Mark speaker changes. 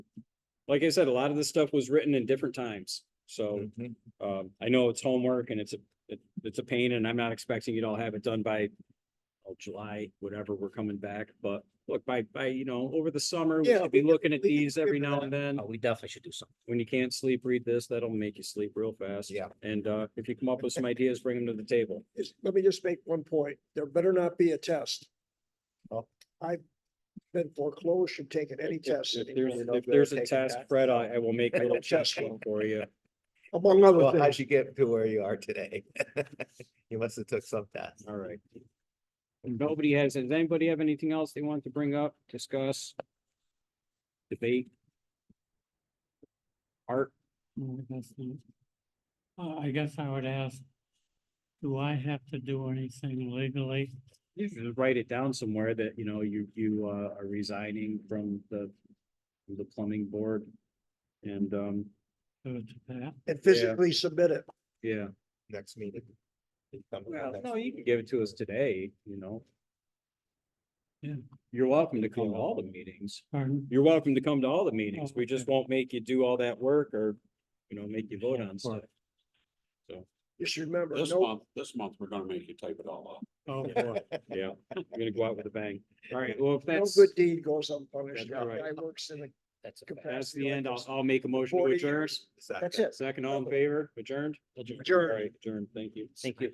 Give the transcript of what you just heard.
Speaker 1: like I said, a lot of this stuff was written in different times. So,
Speaker 2: Mm-hmm.
Speaker 1: um, I know it's homework and it's a, it, it's a pain and I'm not expecting you to all have it done by oh, July, whatever, we're coming back, but look, by, by, you know, over the summer, we
Speaker 2: Yeah,
Speaker 1: should be looking at
Speaker 2: we can
Speaker 1: these every
Speaker 2: figure
Speaker 1: now
Speaker 2: that
Speaker 1: and then.
Speaker 3: Oh, we definitely should do something.
Speaker 1: When you can't sleep, read this. That'll make you sleep real fast.
Speaker 2: Yeah.
Speaker 1: And, uh, if you come up with some ideas, bring them to the table.
Speaker 4: is, let me just make one point. There better not be a test.
Speaker 2: Oh.
Speaker 4: I've been foreclosed from taking any
Speaker 1: If- if-
Speaker 4: test
Speaker 1: If there's,
Speaker 2: really don't
Speaker 1: if
Speaker 2: go
Speaker 1: there's a
Speaker 2: take a
Speaker 1: test,
Speaker 2: test.
Speaker 1: Fred, I, I will make a little
Speaker 4: Test
Speaker 1: test for you.
Speaker 4: among other
Speaker 2: Well, how'd
Speaker 4: things.
Speaker 2: you get to where you are today? You must have took some test.
Speaker 1: All right. If Nobody has, does anybody have anything else they want to bring up, discuss? Debate? Art,
Speaker 5: Mm, that's not- Uh, I guess I would ask, do I have to do anything legally?
Speaker 1: you should write it down somewhere that, you know, you, you, uh, are resigning from the, from the plumbing board. And, um,
Speaker 5: to to that?
Speaker 4: And physically submit it.
Speaker 1: yeah,
Speaker 2: Next meeting. You come to the
Speaker 1: well,
Speaker 2: next
Speaker 1: no, you
Speaker 2: meeting.
Speaker 1: can give it to us today, you know?
Speaker 5: Yeah.
Speaker 1: You're welcome to come to all the meetings.
Speaker 5: Pardon?
Speaker 1: You're welcome to come to all the meetings.
Speaker 5: Oh,
Speaker 1: We just
Speaker 5: okay.
Speaker 1: won't make you do all that work or, you know, make you vote
Speaker 5: Yeah,
Speaker 1: on
Speaker 5: of
Speaker 1: stuff.
Speaker 5: course.
Speaker 4: Just remember,
Speaker 6: This
Speaker 4: no,
Speaker 6: month, this month, we're gonna make you type it all up.
Speaker 5: Oh, boy.
Speaker 1: Yeah, I'm gonna go out with a bang. All right, well, if
Speaker 4: no
Speaker 1: that's,
Speaker 4: good deed goes unpunished.
Speaker 1: That's right.
Speaker 4: I works in the
Speaker 3: That's okay.
Speaker 1: that's
Speaker 4: capacity.
Speaker 1: the
Speaker 4: like
Speaker 1: end, I'll,
Speaker 4: this.
Speaker 1: I'll make a motion to
Speaker 4: Forty
Speaker 1: adjourn.
Speaker 4: years.
Speaker 2: Second.
Speaker 4: That's it.
Speaker 1: Second, all in favor, adjourned?
Speaker 3: Adjourned.
Speaker 1: All right, Adjourned, thank you.
Speaker 3: Thank you.